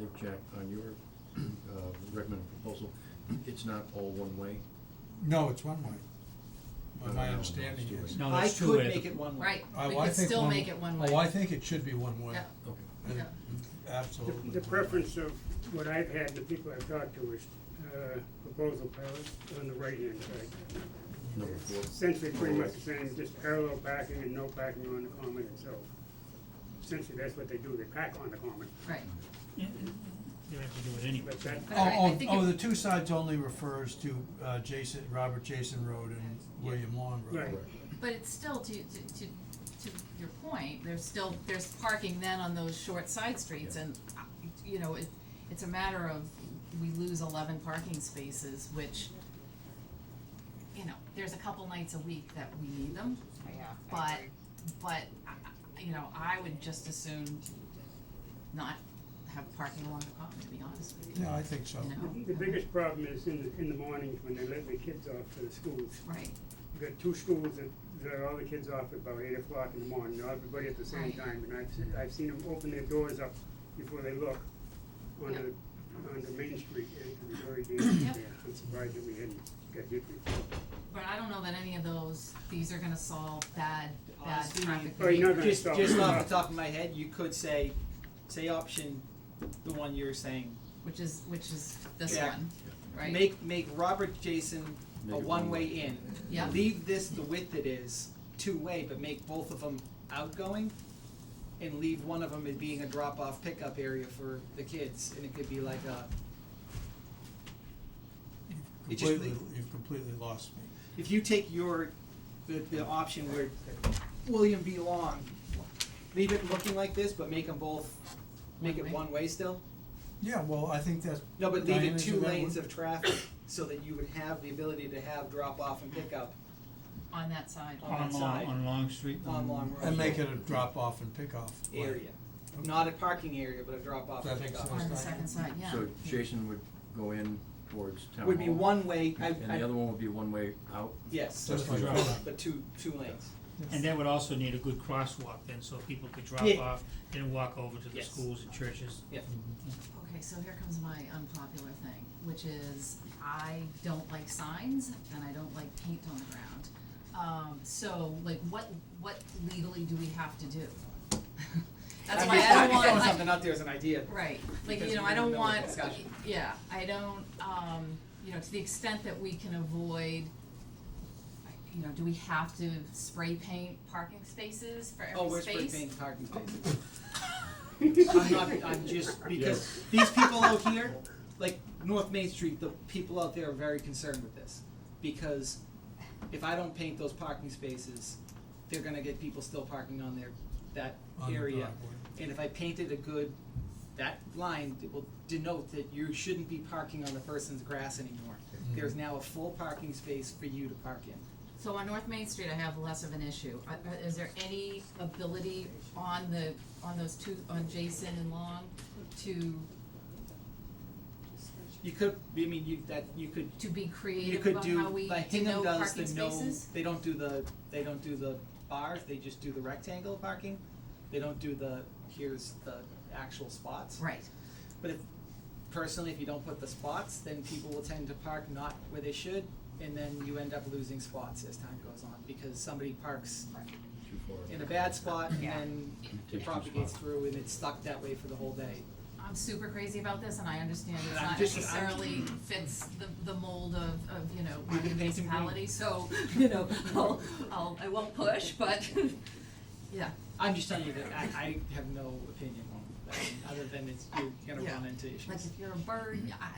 look, Jack, on your uh, recommended proposal, it's not all one way? No, it's one way. No, But my no, no, understanding it's two is. way. No, I that's two could way. make it one way. Right, I- we I could think still make it one way. Oh, I think it should be one way. Yeah. Okay. Uh, Yeah. Absolutely. The preference of what I've had and the people I've talked to is uh, proposal pilot on the right-hand side. Number four? Essentially, pretty much the same, just parallel parking and no parking on the common itself. Essentially, that's what they do, they pack on the common. Right, You have to do it anyway. But that, But I- I Oh, think oh, it- oh, the two sides only refers to, uh, Jason, Robert Jason Road and William Long Road. right, but it's still to, to, to, to your point, there's still, there's parking then on those short side streets and, uh, you know, it, it's a matter of, we lose eleven parking spaces, which, you know, there's a couple nights a week that we need them, Yeah, I but, agree. but, I- I- you know, I would just as soon not have parking along the common, to be honest with you, Yeah, I think so. you know? the biggest problem is in, the- in the mornings when they let the kids off to the schools. Right, We've got two schools that let all the kids off at about eight o'clock in the morning, not everybody at the same Right. time. And I've, se- I've seen them open their doors up before they look Yeah. onto, onto Main Street, and it can be very dangerous Yep. there. I'm surprised that we hadn't got hit before. But I don't know that any of those, these are gonna solve bad, bad Honestly, traffic Well, you're not behavior. gonna Just, just stop. off the top of my head, you could say, say option, the one you're saying. which is, which is this Yeah. one, right? Make, make Robert Jason Make a it one one-way way. in. Yeah. Leave this the width it is, two-way, but make both of them outgoing and leave one of them as being a drop-off pickup area for the kids, and it could be like a, It just- Completely, you've completely lost me. if you take your, the, the option where William B. Long, leave it looking like this, but make them both, make it One-way. one-way still? Yeah, well, I think that's. No, but leave Diane, it is two that lanes one? of traffic, so that you would have the ability to have drop-off and pickup On that side, On that On Long, side. on Long Street. on Long Road. Mm. And make it a drop off and pick off. right. area, not a parking area, but a drop-off That and makes pickup. sense. on the second side, yeah. So Jason would go in towards town hall? Would be one way, I, And the I, other one would be one way out? yes, Just like Drop that. but two, two lanes. And that would also need a good crosswalk then, so people could drop Yeah. off and walk over to the Yes. schools and churches. Okay, so here comes my unpopular thing, which is I don't like signs and I don't like paint on the ground. Um, so like what, what legally do we have to do? That's I'm why just- I I'm don't just want, throwing like, something out there as an idea. Right, like, Because you know, we're I in the don't middle of want, discussion. yeah, I don't, um, you know, to the extent that we can avoid, I- you know, do we have to spray paint parking spaces for Oh, every where's spray space? paint parking Oh. spaces? I'm not, I'm just, because these people out here, like North Main Street, the people out there are very concerned with this. Because if I don't paint those parking spaces, they're gonna get people still parking on their, that On the area. driveway. And if I painted a good, that line that will denote that you shouldn't be parking on the person's grass anymore. Mm-hmm. There's now a full parking space for you to park in. So on North Main Street, I have less of an issue, I- I- is there any ability on the, on those two, on Jason and Long to, You could, I mean, you, that, you could to be You creative could about how do, we like Hingham denote does parking the spaces? no, they don't do the, they don't do the bars, they just do the rectangle parking. They don't do the, here's the actual spots. Right, But if, personally, if you don't put the spots, then people will tend to park not where they should, and then you end up losing spots as time goes on, because somebody parks Too far. in a bad spot and Yeah. then Take it two propagates spots. through and it's stuck that way for the whole day. I'm super crazy about this and I understand it's But I'm not just- I'm- necessarily fits the, the mold of, of, you know, You my can paint them green. municipality, so, you know, I'll, I'll, I won't push, but, yeah. I'm just telling you that I, I have no opinion on that, other than it's, you're gonna Yeah. run into issues. Like if you're a bird, I,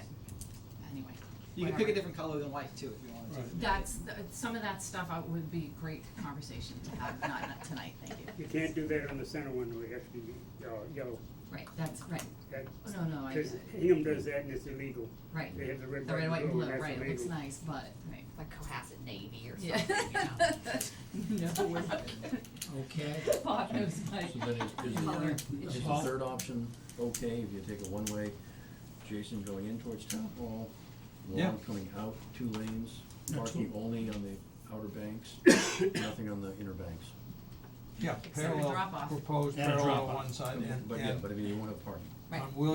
anyway, You can Whatever. pick a different color than white too, if you wanted to. Right. that's, the- some of that stuff I would be great conversation to have, not, not tonight, thank you. You can't do that on the center one, where you have to be yellow, yellow. Right, that's, right, That- Oh, no, no, I get 'cause it, Hingham does that and it's illegal. right, They have the red, the red, white, and blue, blue, and that's right, it looks illegal. nice, but, right, Like Cohasset Navy or yeah. something, you know? No, Okay. Bob knows my So then is, is color the, is the issue. third option okay if you take a one-way, Jason going in towards town hall, Yeah. Long coming out, two lanes, No, parking two. only on the outer banks, nothing on the inner banks. Yeah, Except the parallel, drop-off. proposed And a parallel drop-off. one side and, But Uh, yeah, and but I mean, you won't have parking. Right. on William